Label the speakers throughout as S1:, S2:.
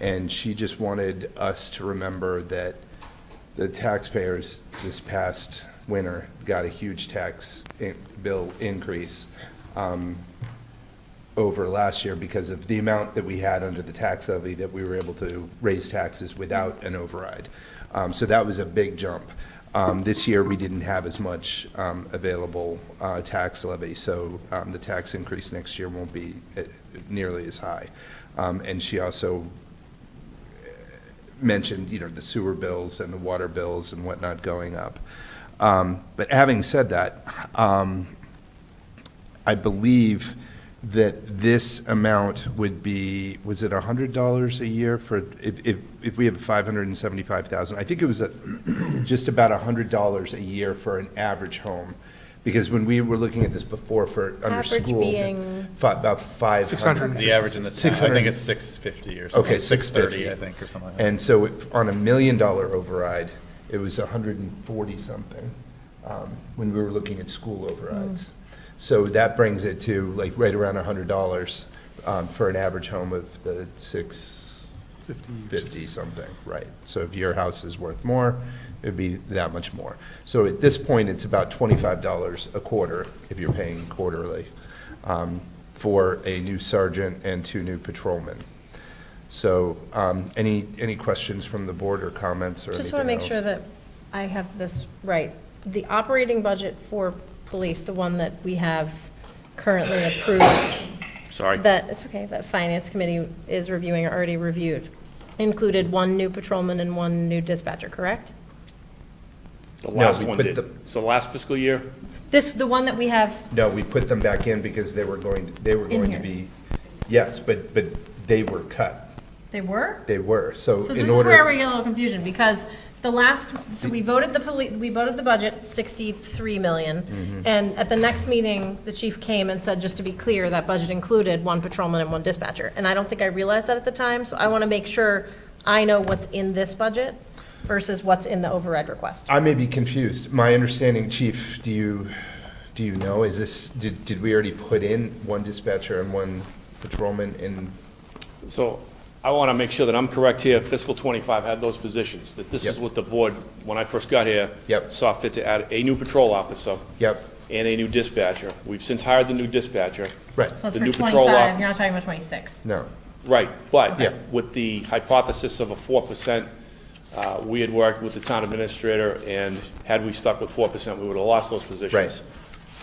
S1: And she just wanted us to remember that the taxpayers this past winter got a huge tax in- bill increase um, over last year because of the amount that we had under the tax levy that we were able to raise taxes without an override. Um, So that was a big jump. Um, This year, we didn't have as much um, available uh, tax levy, so um, the tax increase next year won't be eh, nearly as high. Um, And she also mentioned, you know, the sewer bills and the water bills and whatnot going up. Um, But having said that, um, I believe that this amount would be, was it $100 a year for, if, if, if we have 575,000? I think it was a- just about $100 a year for an average home. Because when we were looking at this before for, under
S2: Average
S1: school.
S2: being-
S1: it's fi- About 500.
S3: 600.
S4: The average in the town, I
S1: 600.
S4: think it's 650 or something.
S1: Okay, six
S4: 630,
S1: fifty.
S4: I think, or something like that.
S1: And so if- on a million dollar override, it was a hundred and forty something, um, when we were looking at school overrides. So that brings it to like right around a hundred dollars, um, for an average home of the six fifty something, right? So if your house is worth more, it'd be that much more. So at this point, it's about twenty-five dollars a quarter if you're paying quarterly, um, for a new sergeant and two new patrolmen. So, um, any, any questions from the board or comments or anything
S2: Just want to make sure
S1: else?
S2: that I have this right. The operating budget for police, the one that we have currently approved,
S5: Sorry.
S2: that, it's okay, that Finance Committee is reviewing or already reviewed, included one new patrolman and one new dispatcher, correct?
S5: The last
S1: we
S5: one
S1: put
S5: did.
S1: the-
S5: So last fiscal year,
S2: This, the one that we have,
S1: No, we put them back in because they were going, they were
S2: In
S1: going to
S2: here.
S1: be, yes, but, but they were cut.
S2: they were?
S1: They were, so
S2: So
S1: in
S2: this is where
S1: order.
S2: we get a little confusion, because the last, so we voted the police, we voted the budget sixty-three
S1: Mm-hmm.
S2: million. And at the next meeting, the chief came and said, just to be clear, that budget included one patrolman and one dispatcher. And I don't think I realized that at the time, so I want to make sure I know what's in this budget versus what's in the override request.
S1: I may be confused. My understanding, chief, do you, do you know, is this, did, did we already put in one dispatcher and one patrolman in?
S5: so I want to make sure that I'm correct here. Fiscal '25 had those positions, that this is
S1: Yep.
S5: what the board, when I first got here,
S1: Yep.
S5: saw fit to add a new patrol officer.
S1: Yep.
S5: And a new dispatcher. We've since hired the new dispatcher.
S1: Right,
S2: So that's
S5: the
S2: for
S5: new patrol
S2: twenty-five,
S5: op-
S2: you're not talking about twenty-six.
S1: no,
S5: Right, but
S1: Yeah.
S5: with the hypothesis of a 4%, uh, we had worked with the town administrator, and had we stuck with 4%, we would have lost those positions.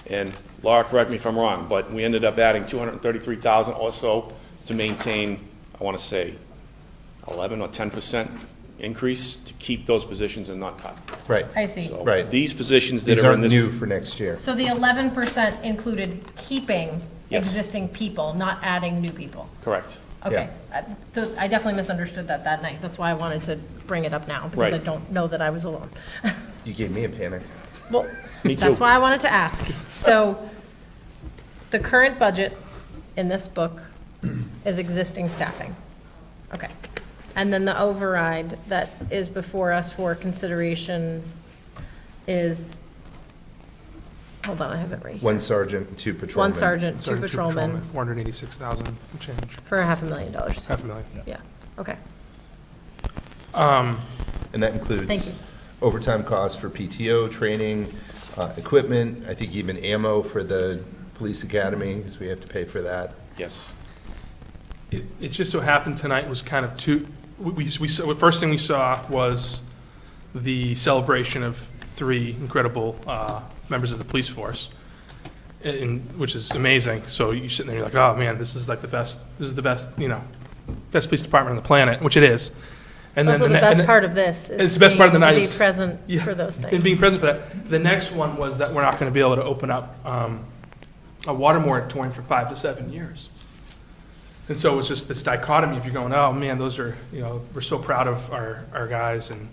S5: And Laura, correct me if I'm wrong, but we ended up adding 233,000 or so to maintain, I want to say, 11 or 10% increase to keep those positions and not cut.
S1: right.
S2: I see.
S5: So
S1: Right.
S5: These positions that
S1: These
S5: are in
S1: aren't
S5: this.
S1: new for next year.
S2: So the eleven percent included keeping
S5: Yes.
S2: existing people, not adding new people.
S5: Correct.
S2: Okay, Uh, so I definitely misunderstood that that night, that's why I wanted to bring it up now, because I
S5: Right.
S2: don't know that I was alone.
S1: You gave me a panic.
S2: Well,
S5: Me
S2: that's
S5: too.
S2: why I wanted to ask. So, the current budget in this book is existing staffing. Okay. And then the override that is before us for consideration is, hold on, I have it right here.
S1: One sergeant, two patrolmen.
S2: One sergeant, two patrolmen,
S3: Four hundred eighty-six thousand and change,
S2: for a half a million dollars.
S3: half a million.
S2: Yeah, okay.
S1: And that
S2: Thank you.
S1: includes overtime costs for PTO, training, uh, equipment, I think even ammo for the police academy, because we have to pay for that.
S5: Yes.
S3: It, it just so happened tonight was kind of two, we, we, we saw, the first thing we saw was the celebration of three incredible, uh, members of the police force. And- And, which is amazing, so you're sitting there, you're like, oh man, this is like the best, this is the best, you know, best police department on the planet, which it is. And then
S2: Also, the
S3: ne- and
S2: best
S3: then-
S2: part of this is.
S3: It's the best part of the
S2: being-
S3: night
S2: To
S3: is-
S2: be present
S3: Yeah,
S2: for those
S3: And being
S2: things.
S3: present for that. The next one was that we're not going to be able to open up um, a water moratorium for five to seven years. And so it's just this dichotomy of you going, oh, man, those are, you know, we're so proud of our, our guys and,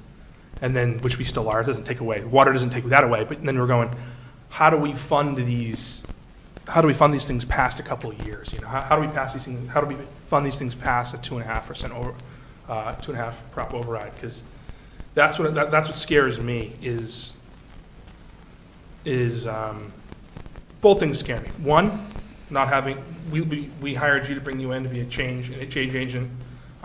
S3: and then, which we still are, it doesn't take away, water doesn't take that away, but then we're going, how do we fund these, how do we fund these things past a couple of years? You know, how, how do we pass these things, how do we fund these things past a two and a half percent over, uh, two and a half prop override? Because that's what, that, that's what scares me is, is, um, both things scare me. One, not having, we, we, we hired you to bring you in to be a change, a change agent